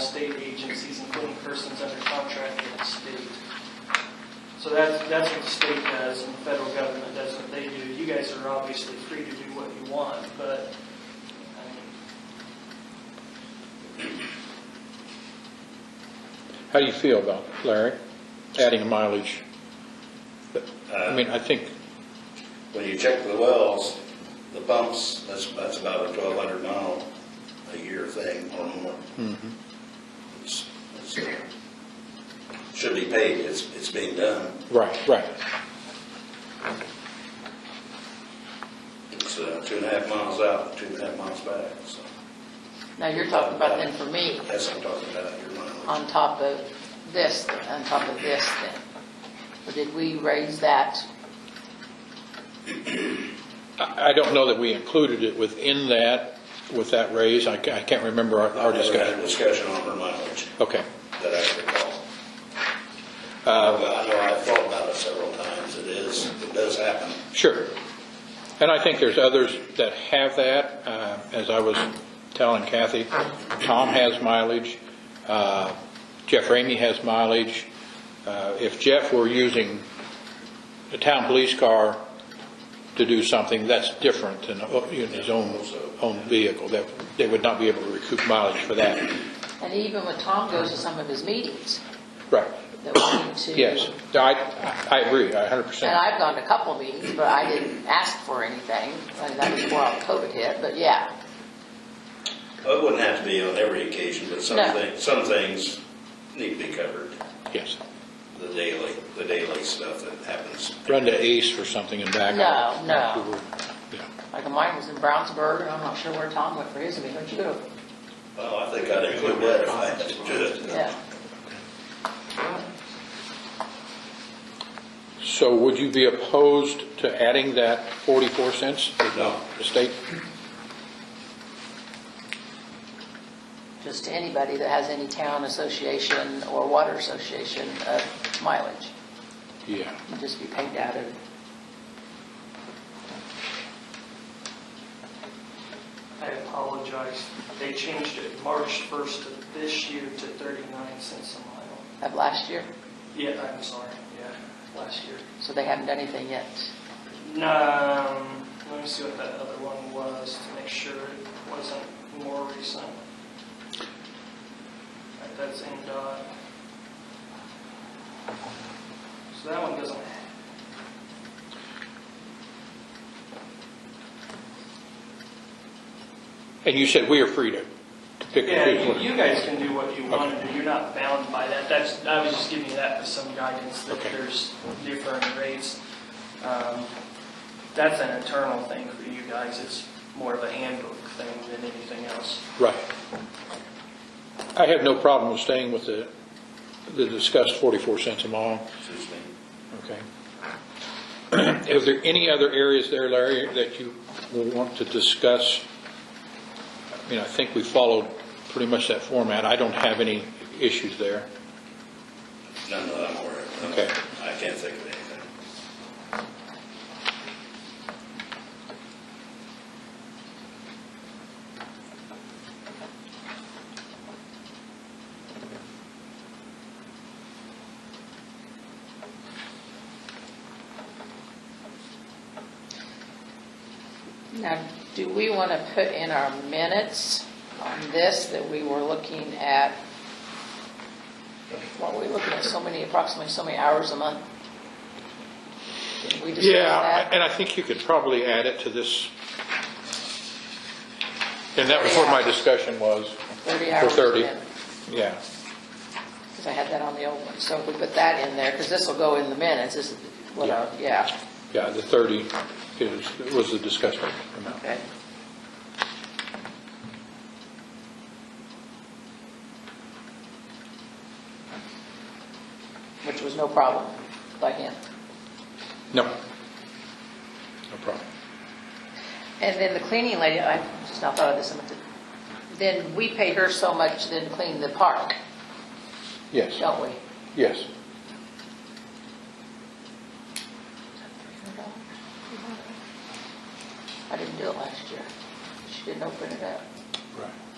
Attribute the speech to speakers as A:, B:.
A: state agencies, including persons under contract with the state. So that's, that's what the state does, and the federal government does what they do. You guys are obviously free to do what you want, but, I mean,
B: How do you feel about it, Larry, adding mileage? I mean, I think,
C: Uh, When you check the wells, the pumps, that's, that's about a twelve hundred mile a year thing or more.
B: Mm-hmm.
C: It's- it's, uh, Should be paid, it's, it's being done.
B: right, right.
C: It's uh, two and a half miles out, two and a half miles back, so
D: Now, you're talking about then for me,
C: that's what I'm talking about, your mileage.
D: on top of this, on top of this then. But did we raise that?
B: I I don't know that we included it within that, with that raise. I ca- I can't remember our our
C: Never had a
B: discussion.
C: Discussion on her mileage
B: Okay.
C: that I recall.
B: Uh,
C: I know I've thought about it several times, it is, it does happen.
B: Sure. And I think there's others that have that. Uh, As I was telling Kathy, Tom has mileage, uh, Jeff Ramey has mileage. Uh, If Jeff were using the town police car to do something, that's different than uh, in his own, own vehicle. That They would not be able to recoup mileage for that.
D: And even when Tom goes to some of his meetings,
B: Right,
D: that we need to.
B: yes. I, I agree, I 100%.
D: And I've gone to a couple of meetings, but I didn't ask for anything. I mean, that was before all COVID hit, but yeah.
C: Well, It wouldn't have to be on every occasion, but some
D: No.
C: things, some things need to be covered,
B: Yes.
C: the daily, the daily stuff that happens.
B: Run to Ace for something and back
D: No,
B: out.
D: no.
B: Yeah.
D: Like mine was in Brownsburg, and I'm not sure where Tom went for his meeting. Where'd you go?
C: Well, I think I'd include that if I had to.
D: Yeah.
B: So would you be opposed to adding that 44 cents to
C: No,
B: the state?
D: Just to anybody that has any town association or water association of mileage.
B: Yeah.
D: It'd just be paid out of
A: I apologize. They changed it March 1st of this year to 39 cents a mile.
D: of last year,
A: Yeah, I'm sorry, yeah, last year.
D: so they haven't done anything yet.
A: Um, let me see what that other one was to make sure it wasn't more recent. Right, That's NDOT. So that one doesn't,
B: And you said we are free to to pick
A: yeah,
B: and
A: you- you
B: choose.
A: guys can do what you want to do. You're not bound by that. That's, I was just giving you that for some guidance that
B: Okay.
A: there's different rates. Um, That's an internal thing for you guys. It's more of a handbook thing than anything else.
B: Right. I have no problem with staying with the, the discussed 44 cents a mile,
C: excuse me.
B: okay? Is there any other areas there, Larry, that you will want to discuss? I mean, I think we followed pretty much that format. I don't have any issues there.
C: None of them were.
B: Okay.
C: I can't think of anything.
D: Now, do we want to put in our minutes on this that we were looking at? What, were we looking at so many, approximately so many hours a month? Didn't we discuss
B: Yeah,
D: that?
B: and I think you could probably add it to this. And that was what my discussion was,
D: 30
B: for
D: hours.
B: 30. yeah.
D: Because I had that on the old one, so if we put that in there, because this will go in the minutes, this is, what, I- yeah,
B: Yeah, the 30 is, was the discussion amount.
D: okay. Which was no problem by him.
B: No. No problem.
D: And then the cleaning lady, I just now thought of this, a minute. then we pay her so much then to clean the park,
B: Yes,
D: don't we?
B: yes.
D: I didn't do it last year. She didn't open it up.
B: Right.